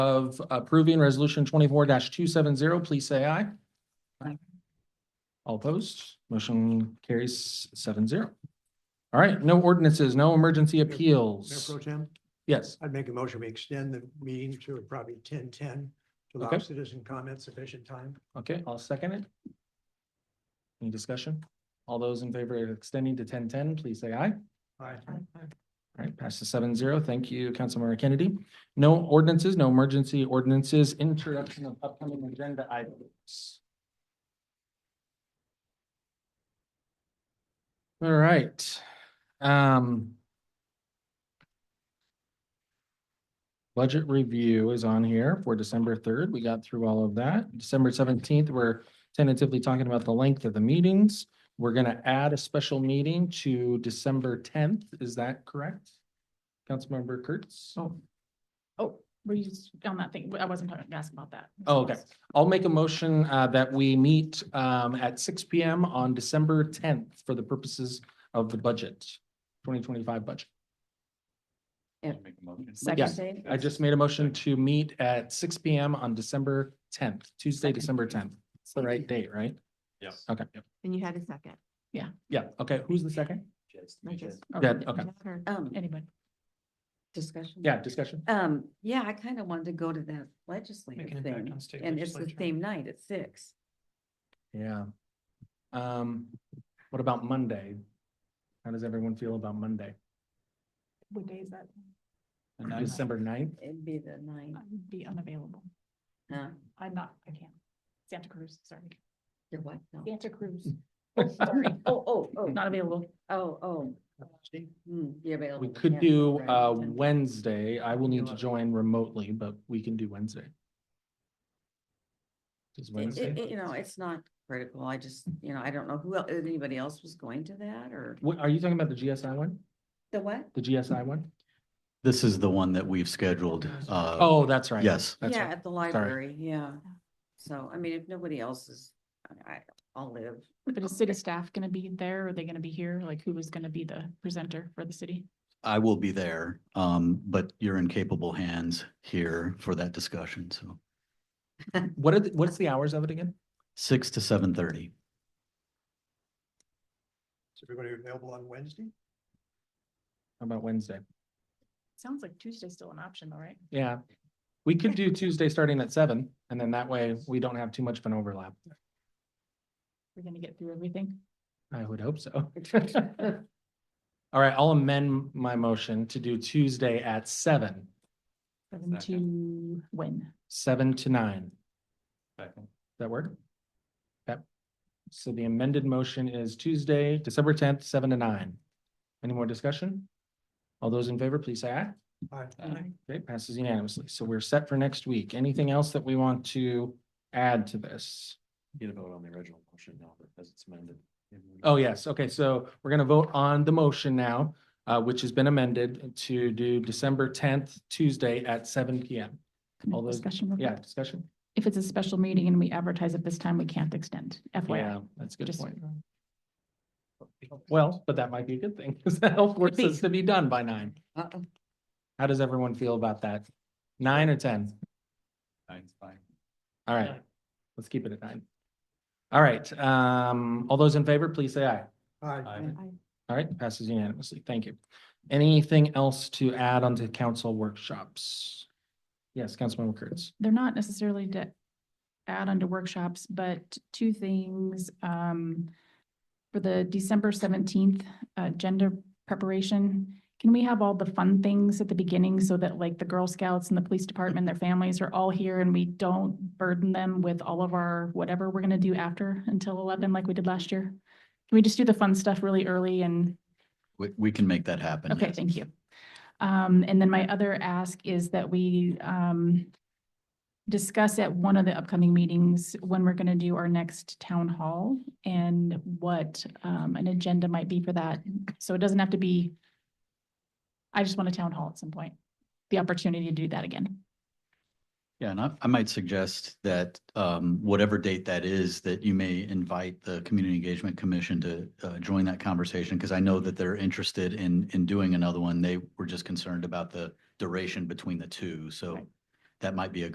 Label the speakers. Speaker 1: of approving resolution twenty-four two seven zero, please say aye.
Speaker 2: Aye.
Speaker 1: All opposed, motion carries seven zero. All right, no ordinances, no emergency
Speaker 3: Mayor
Speaker 1: appeals.
Speaker 3: Pro Tem,
Speaker 1: Yes,
Speaker 3: I'd make a motion, we extend the meeting to probably ten ten to allow
Speaker 1: Okay.
Speaker 3: citizen comment sufficient time.
Speaker 1: okay, I'll second it. Any discussion? All those in favor of extending to ten ten, please say aye.
Speaker 3: Aye.
Speaker 1: All right, passes seven zero. Thank you, Councilmember Kennedy. No ordinances, no emergency ordinances, introduction of upcoming agenda items. All right. Um. Budget review is on here for December third. We got through all of that. December seventeenth, we're tentatively talking about the length of the meetings. We're gonna add a special meeting to December tenth, is that correct? Councilmember Kurtz?
Speaker 2: Oh. Oh, were you just on that thing? I wasn't talking, asking about that.
Speaker 1: Oh, okay. I'll make a motion uh, that we meet um, at six P M on December tenth for the purposes of the budget, twenty twenty-five budget.
Speaker 2: Second day?
Speaker 1: I just made a motion to meet at six P M on December tenth, Tuesday,
Speaker 2: Second.
Speaker 1: December tenth. It's the right date, right?
Speaker 4: Yes.
Speaker 1: Okay,
Speaker 5: And you had a second.
Speaker 1: yeah, okay, who's the second?
Speaker 5: I guess.
Speaker 2: Or
Speaker 1: Yeah, okay.
Speaker 5: Or-
Speaker 6: Um,
Speaker 2: Anybody?
Speaker 6: discussion?
Speaker 1: Yeah, discussion,
Speaker 6: Um, yeah, I kind of wanted to go to that legislative thing, and it's the same night at six.
Speaker 1: yeah. Um, what about Monday? How does everyone feel about Monday,
Speaker 2: What day is that?
Speaker 1: December ninth?
Speaker 6: It'd be the uh, ninth.
Speaker 2: I'd be unavailable.
Speaker 6: Huh?
Speaker 2: I'm not, I can't. Santa Cruz, sorry.
Speaker 6: You're what? No.
Speaker 2: Santa Cruz. Sorry,
Speaker 6: Oh, oh, oh,
Speaker 1: Hmm.
Speaker 2: not available.
Speaker 6: oh, oh.
Speaker 3: Steve?
Speaker 6: Hmm, you're available.
Speaker 1: We could
Speaker 6: yeah,
Speaker 1: do
Speaker 6: right,
Speaker 1: uh
Speaker 6: ten.
Speaker 1: Wednesday. I will need to
Speaker 3: Eleven.
Speaker 1: join remotely, but we can do Wednesday. Does
Speaker 6: It-
Speaker 1: Wednesday?
Speaker 6: it- it- You know, it's not critical. I just, you know, I don't know who, el- if anybody else was going to that or
Speaker 1: What, are you talking about the GSI one?
Speaker 6: the what?
Speaker 1: The GSI one?
Speaker 4: This is the one that we've scheduled. uh,
Speaker 1: Oh, that's right.
Speaker 4: Yes.
Speaker 1: That's
Speaker 6: Yeah,
Speaker 1: right.
Speaker 6: at the library, yeah. So, I mean, if nobody else is, I- I, I'll live.
Speaker 2: But is city staff gonna be there? Are they gonna be here? Like, who is gonna be the presenter for the city?
Speaker 4: I will be there, um, but you're in capable hands here for that discussion. So
Speaker 1: What are, the- what's the hours of it again?
Speaker 4: six to seven thirty.
Speaker 3: Is everybody available on Wednesday?
Speaker 1: How about Wednesday?
Speaker 2: Sounds like Tuesday's still an option though, right?
Speaker 1: Yeah. We could do Tuesday starting at seven and then that way we don't have too much of an overlap.
Speaker 2: We're gonna get through everything.
Speaker 1: I would hope so. All right, I'll amend my motion to do Tuesday at seven,
Speaker 2: Seven to when?
Speaker 1: seven to nine. That work? Yep. So the amended motion is Tuesday, December tenth, seven to nine. Any more discussion? All those in favor, please say aye.
Speaker 3: Aye.
Speaker 1: Okay, passes unanimously. So we're set for next week. Anything else that we want to add to this?
Speaker 7: Get a vote on the original motion now, but as it's amended.
Speaker 1: Oh, yes. Okay, so we're gonna vote on the motion now, uh, which has been amended to do December tenth, Tuesday at seven P M.
Speaker 2: Can we
Speaker 1: All those-
Speaker 2: discussion real
Speaker 1: Yeah,
Speaker 2: quick?
Speaker 1: discussion?
Speaker 2: If it's a special meeting and we advertise it this time, we can't extend
Speaker 1: Yeah,
Speaker 2: FYI.
Speaker 1: that's a good
Speaker 2: Just-
Speaker 1: point. Well, but that might be a good thing, because the health work
Speaker 2: be.
Speaker 1: is to be done by nine. How does everyone feel about that? Nine or ten?
Speaker 7: Nine's fine.
Speaker 1: All right, let's keep it at nine. All right, um, all those in favor, please say aye.
Speaker 3: Aye.
Speaker 1: All right, passes unanimously. Thank you. Anything else to add onto council workshops? Yes, Councilmember Kurtz.
Speaker 2: they're not necessarily to add onto workshops, but two things. um, For the December seventeenth agenda preparation, can we have all the fun things at the beginning so that like the Girl Scouts and the police department, their families are all here and we don't burden them with all of our whatever we're gonna do after until eleven like we did last year? Can we just do the fun stuff really early and
Speaker 4: We, we can make that happen.
Speaker 2: Okay,
Speaker 4: yes.
Speaker 2: thank you. Um, and then my other ask is that we, um, discuss at one of the upcoming meetings when we're gonna do our next town hall and what, um, an agenda might be for that. So it doesn't have to be, I just want a town hall at some point, the opportunity to do that again.
Speaker 4: Yeah, and I, I might suggest that, um, whatever date that is, that you may invite the Community Engagement Commission to, uh, join that conversation, because I know that they're interested in, in doing another one. They were just concerned about the duration between the two, so
Speaker 2: Right.
Speaker 4: that might be a